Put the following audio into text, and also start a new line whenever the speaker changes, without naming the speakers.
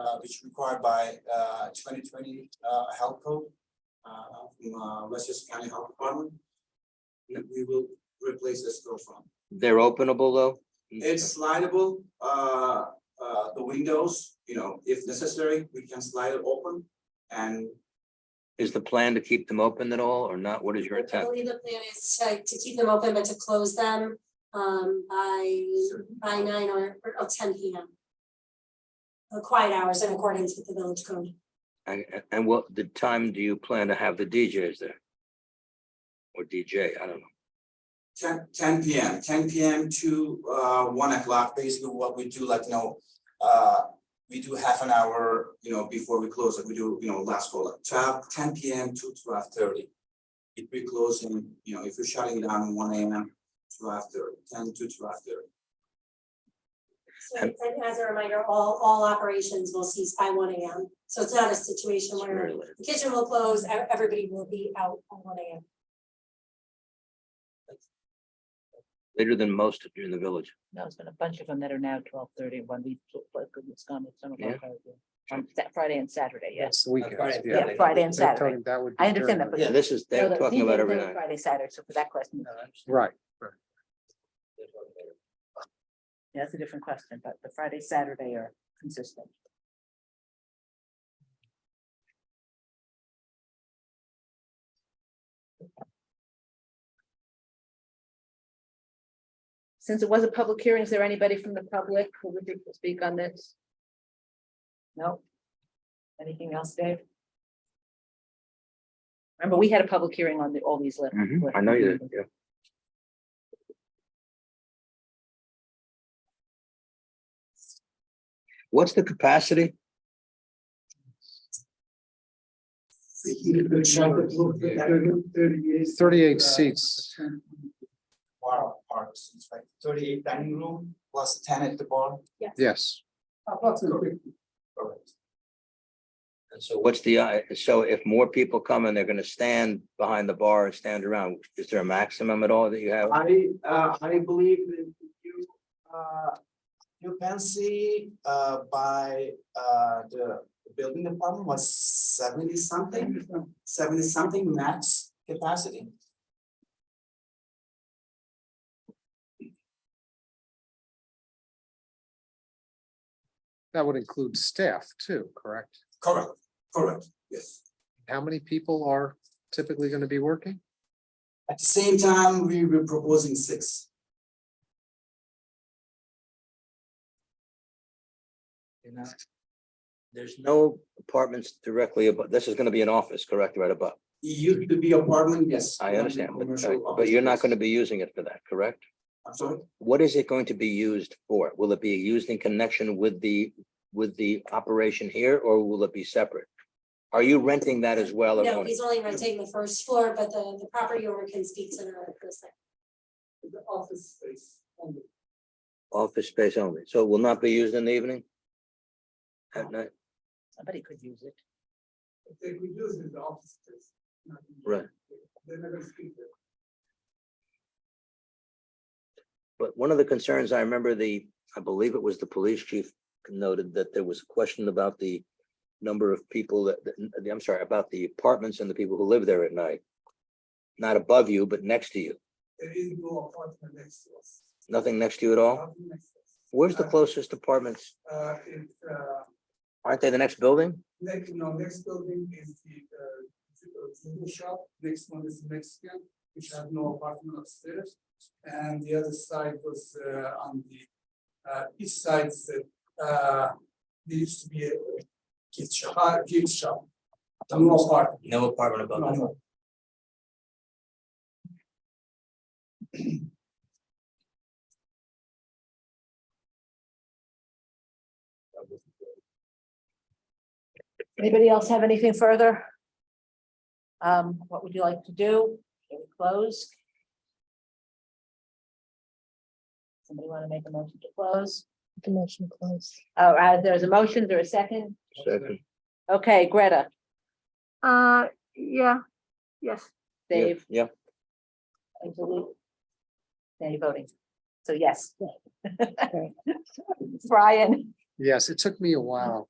uh, which is required by, uh, twenty twenty, uh, health code, uh, from, uh, Westchester County Health Department. We, we will replace the storefront.
They're openable though?
It's slidable, uh, uh, the windows, you know, if necessary, we can slide it open and
Is the plan to keep them open at all or not? What is your
I
intent?
believe the plan is to, to keep them open, but to close them, um, by, by nine or, or oh, 10 P M. The quiet hours in accordance with the village code.
And, and- and what, the time do you plan to have the DJs there? Or DJ, I don't know.
10 10 P M, ten P M to uh one o'clock, basically what we do, like, you know, uh. We do half an hour, you know, before we close, like we do, you know, last call, like 12 10 P M to twelve thirty. If we close in, you know, if we're shutting down one A M, twelve thirty, ten to twelve thirty.
So, and as a reminder, all, all operations will cease by one A M. So it's not a situation
It's
where
very late.
the kitchen will close, e- everybody will be out by one A M.
Later than most of you in the village.
No, it's been a bunch of them that are now twelve thirty, one week, but goodness gone, it's some of
Yeah.
them. On Sat- um, Friday and Saturday, yes.
It's the weekend.
Yeah, Uh, Friday and Saturday.
That would.
I
be
understand
during
that,
the-
Yeah, this is,
No,
they're
the
talking about
weekend,
every
they were
night.
Friday, Saturday, so for that question,
Right.
that's a different question, but the Friday, Saturday are consistent. Since it was a public hearing, is there anybody from the public who would like to speak on this? No? Anything else, Dave? Remember, we had a public hearing on the, all these lists.
Mhm, I know you, did, yeah. What's the capacity?
Thirty-eight seats.
Wow, parks, it's like thirty eight dining room plus ten at the bar.
Yes.
Approximately. Correct.
And So what's the, uh, so if more people come and they're gonna stand behind the bar and stand around, is there a maximum at all that you have?
I, uh, I believe that you, uh, you can see, uh, by, uh, the building department was seventy something, seventy something max capacity.
That would include staff too, correct?
Correct, correct, yes.
How many people are typically going to be working?
At the same time, we were proposing six.
You're not- There's no apartments directly above, this is gonna be an office, correct, right above?
It used to be apartment, yes.
I understand, but,
commercial
uh, but you're not
office.
gonna be using it for that, correct?
I'm sorry,
What is it going to be used for? Will it be used in connection with the, with the operation here, or will it be separate? Are you renting that as well? or
No,
owning?
he's only renting the first floor, but the, the property owner can speak to the, the second.
the office space only.
Office space only, so it will not be used in the evening? At night,
Somebody could use it.
They could use it, the office space. not in the-
right,
They're not gonna speak there.
but one of the concerns, I remember the, I believe it was the police chief noted that there was a question about the number of people that, that- I'm sorry, about the apartments and the people who live there at night. Not above you, but next to you,
There is no apartment next to us.
nothing next to you at all?
Nothing next to us.
Oh. Where's the closest apartments?
Uh, it's, uh,
Aren't they the next building?
next, no, next building is the, uh, ju- uh, judo shop, next one is Mexican, which has no apartment upstairs. And the other side was, uh, on the, uh, east side, is, uh, there used to be a uh, gift shop, uh, gift shop. No apartment.
No apartment above
No,
that.
no.
Anybody else have anything further? Um, what would you like to do? Can we close? Somebody want to make a motion to close? The motion close. All right, there's a motion, there a second?
Second,
Okay, Greta,
Uh, yeah, yes.
Yeah,
Dave,
yeah,
and Delu. Any voting? So yes. Brian,
Yes, it took me a while.